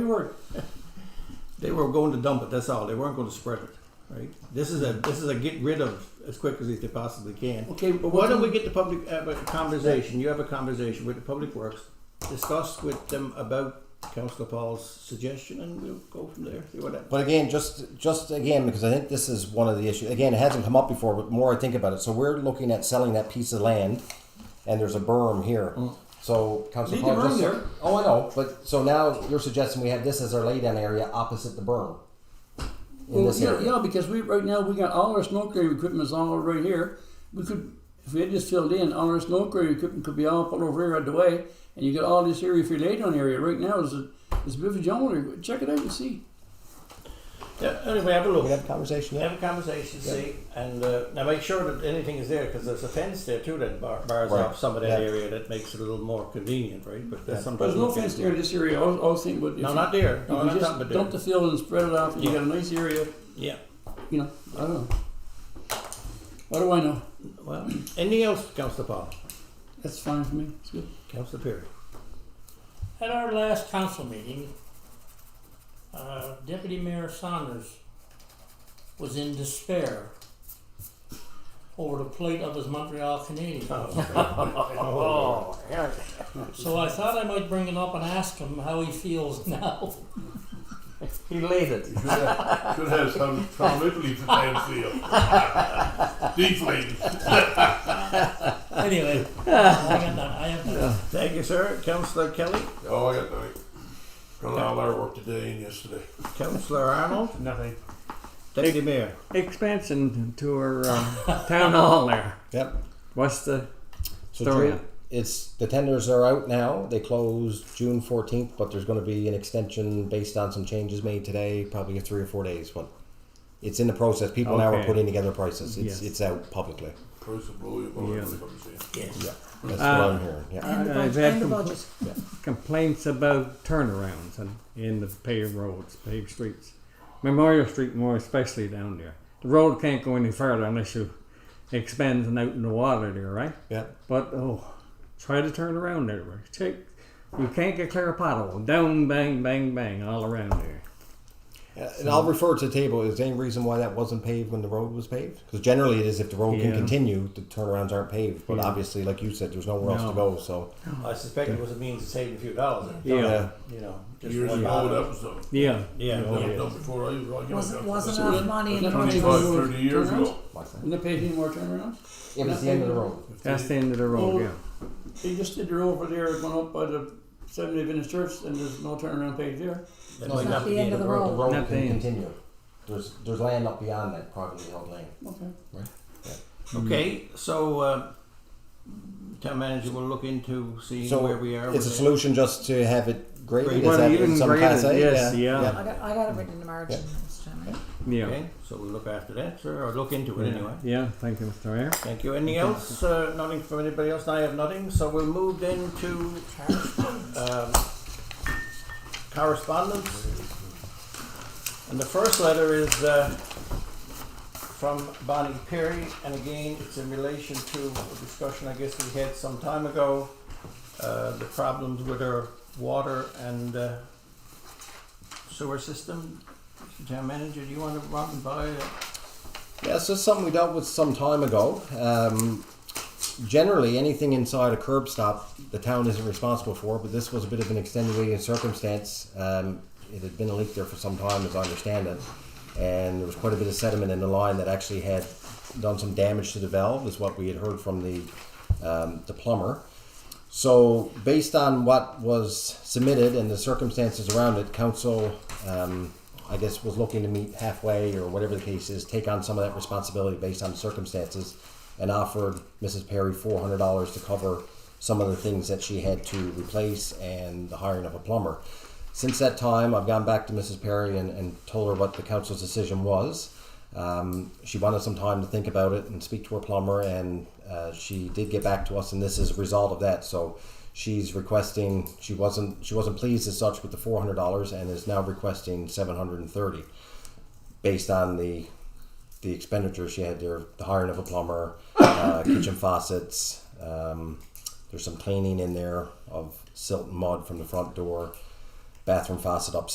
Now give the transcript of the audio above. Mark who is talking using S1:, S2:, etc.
S1: were they were going to dump it. That's all. They weren't going to spread it. Right. This is a this is a get rid of as quick as they possibly can. Okay. But why don't we get the public uh, but conversation? You have a conversation with the public works. Discuss with them about Councillor Paul's suggestion, and we'll go from there. See what happens.
S2: But again, just just again, because I think this is one of the issues. Again, it hasn't come up before, but more I think about it. So we're looking at selling that piece of land, and there's a berm here. So Council
S1: Leave the Mm. berm
S2: Paul, just,
S1: there.
S2: oh, I know. But so now you're suggesting we have this as our laydown area opposite the berm. In
S3: Well,
S2: this
S3: yeah,
S2: area.
S3: yeah, because we right now we got all our snow clearing equipment is all over right here. We could, if we had just filled in, all our snow clearing equipment could be all put over here out the way, and you got all this area for your laydown area. Right now is a is a bit of a jungle. Check it out and see.
S1: Yeah, anyway, have a look.
S2: We have a conversation.
S1: Have a conversation, see, and uh, now make sure that anything is there because there's a fence there too that bar- bars
S2: Right.
S1: off some of that
S2: Yeah.
S1: area that makes it a little more convenient, right? But that's
S3: But
S1: sometimes
S3: there's no
S1: we can-
S3: fence there in this area. I was, I was thinking, but if
S1: No,
S3: you,
S1: not there.
S3: if
S1: No,
S3: you
S1: not
S3: just
S1: dump it
S3: dump the
S1: there.
S3: field and spread it out, and you
S1: Yeah.
S3: got a nice area.
S1: Yeah.
S3: You know, I don't know. What do I know?
S1: Well, anything else, Councillor Paul,
S3: That's fine for me. It's good.
S1: Councillor Perry?
S4: At our last council meeting, uh, Deputy Mayor Saunders was in despair over the plight of his Montreal Canadiens.
S1: Oh,
S4: So I thought I might bring it up and ask him how he feels now.
S5: You should have, should have some, some Italy to dance here. Deflated.
S4: Anyway, I got that. I have that.
S1: Thank you, sir. Councillor Kelly,
S5: Oh, I got nothing. Done all our work today and yesterday.
S1: Councillor Arnold,
S6: Nothing.
S1: Deputy Mayor.
S6: Expansion to our um, town hall there.
S2: Yep.
S6: What's the
S2: So
S6: Story.
S2: June, it's the tenders are out now. They closed June fourteenth, but there's going to be an extension based on some changes made today, probably three or four days. But it's in the process. People now are
S6: Okay.
S2: putting together prices. It's
S6: Yes.
S2: it's out publicly.
S5: Price of blue, you know,
S6: Yeah.
S5: everybody's saying.
S2: That's
S6: Ah.
S2: what I'm hearing. Yeah.
S7: And the,
S6: I've
S7: budget,
S6: had
S7: and the
S6: compl-
S7: budget.
S6: complaints about turnarounds and in the paved roads, paved streets, Memorial Street more especially down there. The road can't go any further unless you expand and out in the water there, right?
S2: Yeah.
S6: But oh, try to turn around there. right? Check. You can't get clear a pothole. Down, bang, bang, bang, all around there.
S2: And I'll refer to the table. Is there any reason why that wasn't paved when the road was paved? Because generally it is if the road can
S6: Yeah.
S2: continue, the turnarounds aren't paved. But obviously, like you said, there's nowhere else to
S6: No.
S2: go. So
S1: I suspect it was a means of saving a few dollars.
S6: Yeah.
S1: You know, just
S5: Years
S1: one
S5: ago,
S1: dollar.
S5: that was something.
S6: Yeah.
S1: Yeah.
S5: That
S1: yeah.
S5: was done before I was on. you
S7: Wasn't
S5: know,
S7: wasn't
S3: So
S7: enough money in the budget.
S3: Twenty-five.
S7: was-
S5: 25, 30 years ago.
S3: And they paid any more turnarounds?
S2: it was the end of the road.
S6: That's the end of the
S3: Oh.
S6: road, yeah.
S3: They just did the road over there, went up by the Seventh Day Adventist Church, and there's no turnaround page there.
S1: That
S2: No,
S1: might
S2: it's
S7: not the end of the
S2: The
S7: road.
S2: road
S6: Not
S2: can
S6: paved.
S2: continue. There's there's land up beyond that privately held land.
S3: Okay.
S1: Okay, so uh, town manager will look into seeing
S2: So
S1: where we are. with
S2: It's a
S1: it.
S2: solution just to have it graded.
S1: Graded.
S2: Is that
S6: Well,
S2: in some
S6: even
S2: class A?
S6: graded, yes, yeah.
S7: I got, I got it written in the margin, Mr. Chairman.
S6: Yeah.
S1: Okay, so we'll look after that, sir, or look into it anyway.
S6: Yeah. yeah, thank you, Mr. Mayor.
S1: Thank you. Anything else? Uh, nothing from anybody else? I have nothing. So we'll move then to um, correspondence. And the first letter is uh, from Bonnie Perry, and again, it's in relation to a discussion I guess we had some time ago. Uh, the problems with our water and uh, sewer system. Mr. Town manager, do you want to run by? it?
S2: Yeah, so it's something we dealt with some time ago. Um, generally, anything inside a curb stop, the town isn't responsible for, but this was a bit of an extenuating circumstance. Um, it had been a leak there for some time, as I understand it, and there was quite a bit of sediment in the line that actually had done some damage to the valve, is what we had heard from the, um, the plumber. So, based on what was submitted and the circumstances around it, council, um, I guess, was looking to meet halfway or whatever the case is, take on some of that responsibility based on circumstances, and offered Mrs. Perry four hundred dollars to cover some of the things that she had to replace and the hiring of a plumber. Since that time, I've gone back to Mrs. Perry and, and told her what the council's decision was. Um, she wanted some time to think about it and speak to her plumber, and uh, she did get back to us, and this is a result of that. So she's requesting she wasn't she wasn't pleased as such with the four hundred dollars, and is now requesting seven hundred and thirty, based on the the expenditure she had there, the hiring of a plumber, uh, kitchen faucets. Um, there's some cleaning in there of silt and mud from the front door, bathroom faucet upstairs.